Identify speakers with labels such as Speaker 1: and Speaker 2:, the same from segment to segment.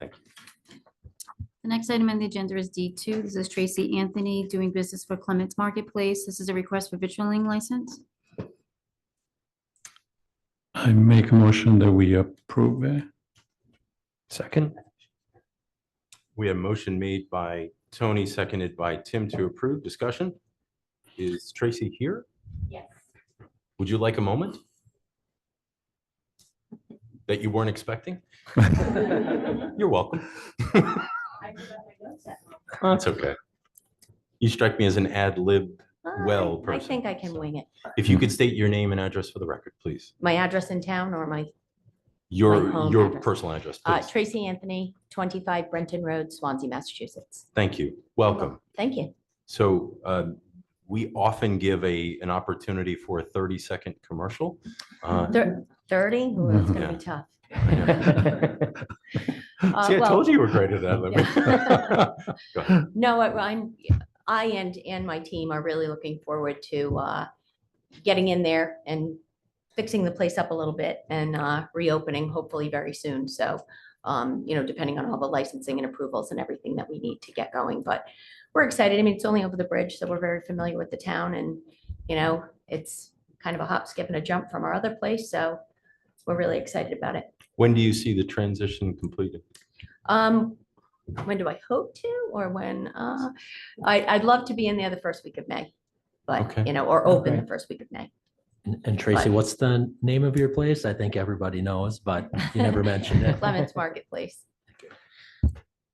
Speaker 1: Thank you.
Speaker 2: The next item on the agenda is D2. This is Tracy Anthony doing business for Clements Marketplace. This is a request for vitrulating license.
Speaker 3: I make a motion that we approve it.
Speaker 4: Second,
Speaker 1: We have a motion made by Tony, seconded by Tim to approve. Discussion? Is Tracy here?
Speaker 2: Yes.
Speaker 1: Would you like a moment? That you weren't expecting? You're welcome. That's okay. You strike me as an ad lib. Well,
Speaker 5: I
Speaker 1: person,
Speaker 5: think I can
Speaker 1: so.
Speaker 5: wing it.
Speaker 1: If you could state your name and address for the record, please.
Speaker 5: My address in town or my, My
Speaker 1: Your,
Speaker 5: home
Speaker 1: your
Speaker 5: address.
Speaker 1: personal address,
Speaker 5: uh,
Speaker 1: please.
Speaker 5: Tracy Anthony, 25 Brenton Road, Swansea, Massachusetts.
Speaker 1: Thank you. Welcome.
Speaker 5: Thank you.
Speaker 1: So um, we often give a, an opportunity for a 30-second commercial. Uh,
Speaker 5: Thir- 30, Ooh, it's gonna
Speaker 1: Yeah.
Speaker 5: be tough. Uh,
Speaker 1: See, I
Speaker 5: well-
Speaker 1: told you you were great at that. Go ahead.
Speaker 5: No, I- I'm, I and, and my team are really looking forward to uh, getting in there and fixing the place up a little bit and uh, reopening hopefully very soon. So, um, you know, depending on all the licensing and approvals and everything that we need to get going. But we're excited. I mean, it's only over the bridge, so we're very familiar with the town and, you know, it's kind of a hop, skip and a jump from our other place. So we're really excited about it.
Speaker 1: When do you see the transition completed?
Speaker 5: Um, when do I hope to, or when, uh, I, I'd love to be in there the first week of May.
Speaker 1: Okay.
Speaker 5: But, you know, or open the first week of May.
Speaker 4: and and Tracy,
Speaker 5: Right.
Speaker 4: what's the name of your place? I think everybody knows, but you never mentioned it.
Speaker 5: Clements Marketplace.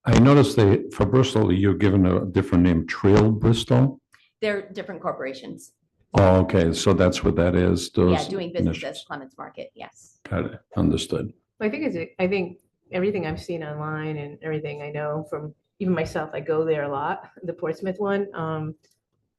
Speaker 3: I noticed that for Bristol, you're given a different name, Trail Bristol.
Speaker 5: They're different corporations.
Speaker 3: Oh, Okay, so that's what that is.
Speaker 5: Yeah,
Speaker 3: those
Speaker 5: doing business as
Speaker 3: initials.
Speaker 5: Clements Market, yes.
Speaker 3: Got it, understood.
Speaker 6: I think it's, I think everything I've seen online and everything I know from even myself, I go there a lot, the Portsmouth one. Um,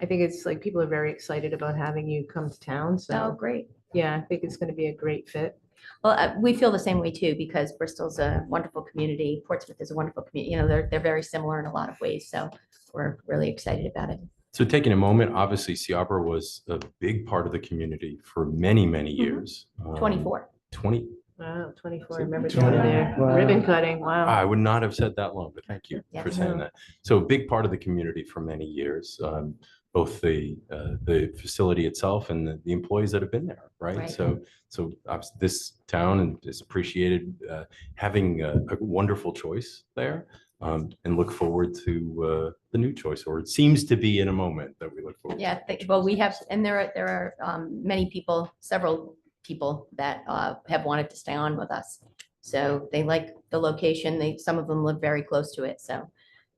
Speaker 6: I think it's like people are very excited about having you come to town.
Speaker 5: Oh,
Speaker 6: So
Speaker 5: great.
Speaker 6: yeah, I think it's going to be a great fit.
Speaker 5: Well, uh, we feel the same way too, because Bristol's a wonderful community, Portsmouth is a wonderful community, you know, they're, they're very similar in a lot of ways, so we're really excited about it.
Speaker 1: So taking a moment, obviously Seabra was a big part of the community for many, many
Speaker 5: Mhm.
Speaker 1: years. Um,
Speaker 5: Twenty-four.
Speaker 1: 20,
Speaker 6: Wow, 24,
Speaker 1: So
Speaker 6: I remember
Speaker 1: 20.
Speaker 6: going there,
Speaker 4: Wow.
Speaker 6: ribbon cutting, wow.
Speaker 1: I would not have said that long, but thank you
Speaker 5: Oh. Yeah.
Speaker 1: for saying
Speaker 6: Mhm.
Speaker 1: that. So a big part of the community for many years, um, both the, uh, the facility itself and the- the employees that have been there, right?
Speaker 5: Right.
Speaker 1: So, so obs- this town and is appreciated uh, having a a wonderful choice there um, and look forward to uh, the new choice, or it seems to be in a moment that we look forward. to.
Speaker 5: Yeah, th- well, we have, and there are, there are um, many people, several people that uh, have wanted to stay on with us. So they like the location, they, some of them live very close to it, so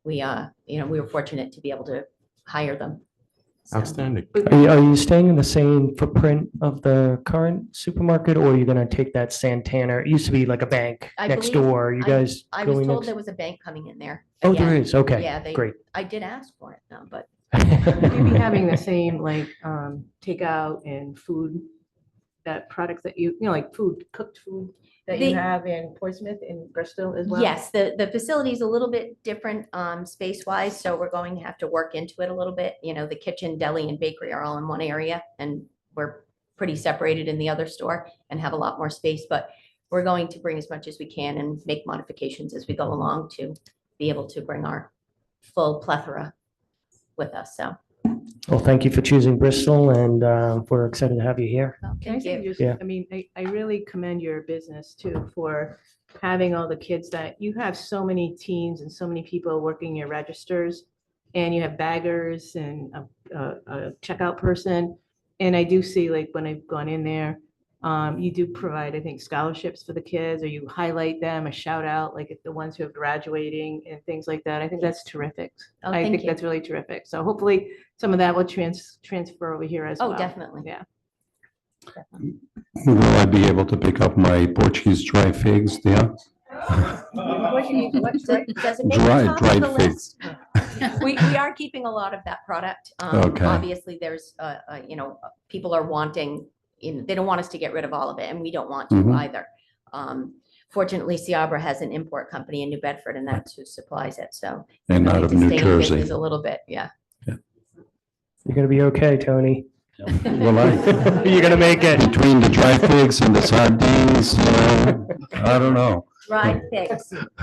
Speaker 5: we, uh, you know, we were fortunate to be able to hire them. So,
Speaker 1: Outstanding.
Speaker 7: Are you, are you staying in the same footprint of the current supermarket or are you gonna take that Santana? It used to be like a bank
Speaker 5: I
Speaker 7: next
Speaker 5: believe-
Speaker 7: door. Are you
Speaker 5: I-
Speaker 7: guys
Speaker 5: I was
Speaker 7: going
Speaker 5: told
Speaker 7: next?
Speaker 5: there was a bank coming in there.
Speaker 7: Oh,
Speaker 5: Yeah,
Speaker 7: there is. Okay,
Speaker 5: Yeah, they,
Speaker 7: great.
Speaker 5: I did ask for it though, but
Speaker 6: Maybe having the same like um, takeout and food, that products that you, you know, like food, cooked food that
Speaker 5: They-
Speaker 6: you have in Portsmouth and Bristol as well.
Speaker 5: Yes, the, the facility's a little bit different um, space-wise, so we're going to have to work into it a little bit. You know, the kitchen, deli, and bakery are all in one area, and we're pretty separated in the other store and have a lot more space, but we're going to bring as much as we can and make modifications as we go along to be able to bring our full plethora with us, so.
Speaker 7: Well, thank you for choosing Bristol and, uh, we're excited to have you here.
Speaker 6: Can I
Speaker 5: Thank
Speaker 6: say
Speaker 5: you.
Speaker 6: just,
Speaker 7: Yeah.
Speaker 6: I mean, I, I really commend your business too for having all the kids that, you have so many teens and so many people working your registers. And you have baggers and a, a, a checkout person. And I do see like when I've gone in there, um, you do provide, I think, scholarships for the kids or you highlight them, a shout out, like if the ones who are graduating and things like that. I think that's terrific.
Speaker 5: Oh,
Speaker 6: I
Speaker 5: thank
Speaker 6: think
Speaker 5: you.
Speaker 6: that's really terrific. So hopefully some of that will trans, transfer over here as well.
Speaker 5: Oh, definitely.
Speaker 6: Yeah.
Speaker 3: Will I be able to pick up my Portuguese dry figs there?
Speaker 5: Does does it make
Speaker 3: Dry-
Speaker 5: the top of
Speaker 3: dried
Speaker 5: the
Speaker 3: figs.
Speaker 5: list? We, we are keeping a lot of that product. Um,
Speaker 3: Okay.
Speaker 5: Obviously, there's, uh, uh, you know, uh, people are wanting, you know, they don't want us to get rid of all of it and we don't want to
Speaker 3: Mhm.
Speaker 5: either. Um, Fortunately, Seabra has an import company in New Bedford and that's who supplies it. So.
Speaker 3: And
Speaker 5: I
Speaker 3: out
Speaker 5: think
Speaker 3: of
Speaker 5: to
Speaker 3: New
Speaker 5: stay in business
Speaker 3: Jersey?
Speaker 5: A little bit, yeah.
Speaker 7: You're gonna be okay, Tony.
Speaker 3: Will I?
Speaker 7: You're gonna make it.
Speaker 3: Between the dry figs and the sardines, you know, uh, I don't know.
Speaker 5: Right, thanks.